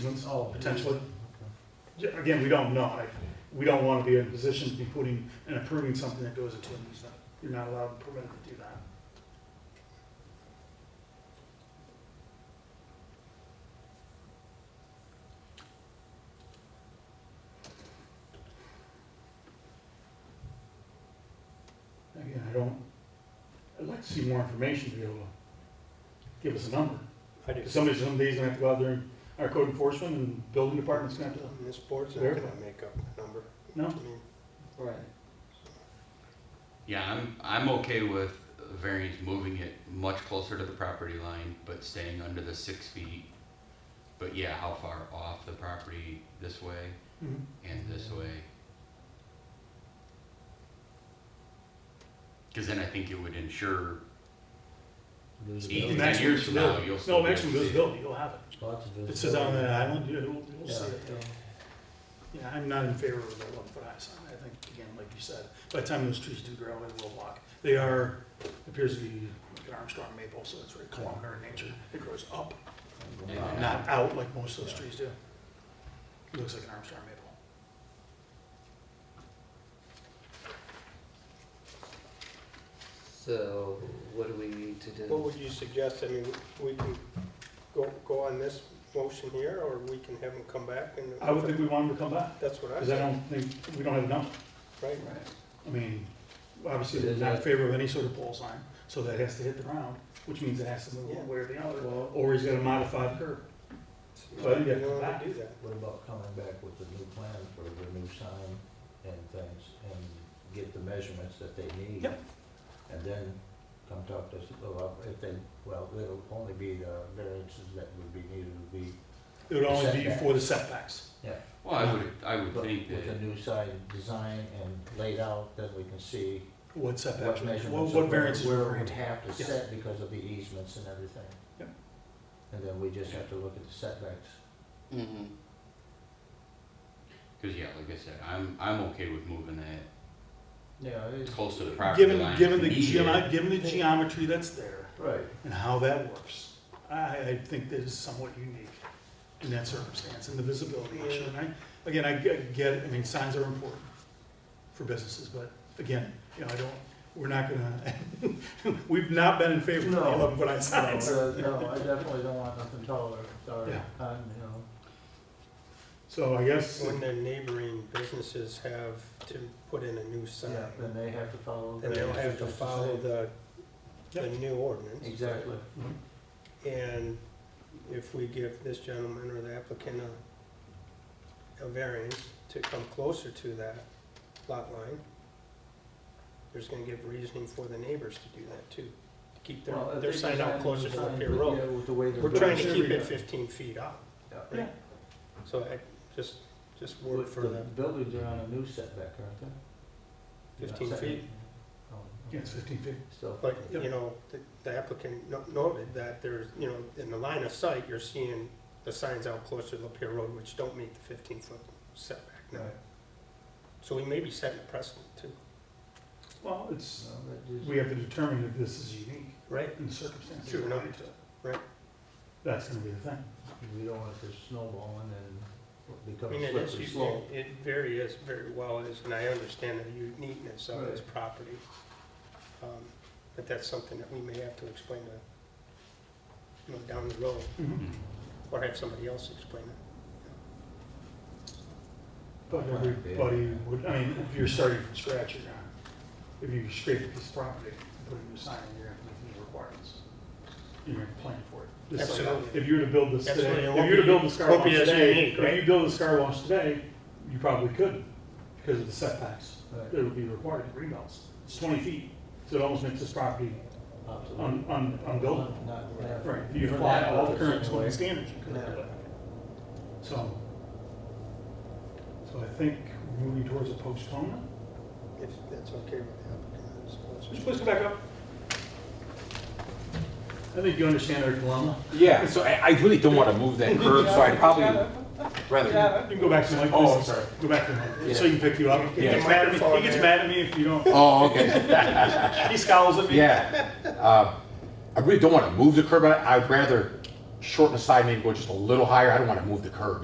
Oh, potentially. J- Again, we don't know. Like, We don't want to be in a position to be putting and approving something that goes into an easement. You're not allowed to permit to do that. Again, I don't, I'd like to see more information to be able to give us a number. I do. Somebody, some days gonna have to go out there and, our code enforcement and building department's gonna have to, This board's not gonna make up the number. No. I mean, Right. Yeah, I'm, I'm okay with a variance moving it much closer to the property line, but staying under the six feet. But yeah, how far off the property this way Mhm. and this way? Cause then I think it would ensure eight to ten Maximum years from now, visibility. you'll still no be able to maximum see it. visibility, you'll have it. It says out on that island, you'll, you'll Yeah. see it. Yeah, I'm not in favor of the one foot high sign. I think, again, like you said, by the time those trees do grow, it will walk. They are, appears to be like an Armstrong maple, so it's very columnar in nature. It grows up, Yeah. not out like most of those trees do. Looks like an Armstrong maple. So what do we need to What do? would you suggest? I mean, we can go, go on this motion here, or we can have them come back and. I would think we want them to come back, That's what I because I said, don't think, we don't have enough. right? I mean, obviously, they're not in favor of any sort of pole sign, so that has to hit the ground, which means it has to move one way or the other, or he's gonna modify the curb. Well, You yeah. don't wanna do that. What about coming back with a new plan for the new sign and things, and get the measurements that they need? Yep. And then come talk to us about if they, well, it'll only be the variances that would be needed would be, It would only be for the setbacks. yeah. Well, I would, I would But think with the that, new sign design and laid out, then we can see What setbacks, what measurements. what, or what where- variances Where we're we'd granting. have to Yes. set because of the easements and everything. Yep. And then we just have to look at the setbacks. Mm-hmm. cause yeah, like I said, I'm, I'm okay with moving that Yeah, it is. close to the property line. Given, given the if needed. geomet, given the geometry that's there Right. and how that works, I, I think that is somewhat unique in that circumstance, and the visibility issue, and I, again, I g- get, it. I mean, signs are important for businesses, but again, you know, I don't, we're not gonna, we've not been in favor of the No. eleven foot high No, signs. uh, no, I definitely don't want nothing taller, sorry, Yeah. um, you know. So I guess, When the neighboring businesses have to put in a new sign, Yeah, then they have to follow. then they'll have to the- follow the, the new ordinance. Exactly. And if we give this gentleman or the applicant a, a variance to come closer to that lot line, there's gonna give reasoning for the neighbors to do that too, to keep their, Well, if their they sign design out the closer to sign, Lapeer but, Road. yeah, with the way they're We're trying to doing keep it yeah. fifteen feet up, Yeah. yeah, so I, just, just work With for the the buildings are on a new setback, aren't they? You're not 15 setting- feet. Oh, okay. yeah, it's fifteen feet. Still. But, Yep. you know, the- the applicant no- noted that there's, you know, in the line of sight, you're seeing the signs out closer to Lapeer Road, which don't meet the fifteen-foot setback now. Right. So we may be setting a precedent too. Well, it's, No, that is- we have to determine if this is unique Right. in the circumstances. Sure, no. related to it. Right. That's gonna be the thing. We don't want this snowballing and I become mean, it a is, slippery you- slope. it very is, very well is, and I understand the uniqueness of this property. Um, But that's something that we may have to explain to, you know, down the road, Mm-hmm. Mhm. or have somebody else explain it. But everybody would, I mean, if you're starting from scratch, you're gonna, if you scrape this property and put a new sign in, you're gonna meet new requirements. You're gonna plan for it. Just like Absolutely. If you were to build this Absolutely, today, it if won't you were to be- build this car won't wash be as today, unique, right? if you build this car wash today, you probably couldn't because of the setbacks. Right. It would be required, greenbelts. It's twenty feet, so it almost makes this property Absolutely. un, un, unbuildable. Not- not- Right, if you for apply that all the purpose current anyway. zoning standards, you could do it. So, so I think we're moving towards a postponement. If that's okay with the applicant, I suppose. Would you please come back up? I think you understand our dilemma. Yeah, so I, I really don't want to move that curb, so I'd probably rather. You can go back to the mic. Oh, please. I'm sorry. Go back to the mic, so you can pick you up. He gets Yeah. mad at me, he gets mad at me if you don't, Oh, okay. he scowls at me. Yeah. Uh, I really don't want to move the curb. I, I'd rather shorten the side, maybe go just a little higher, I don't wanna move the curb.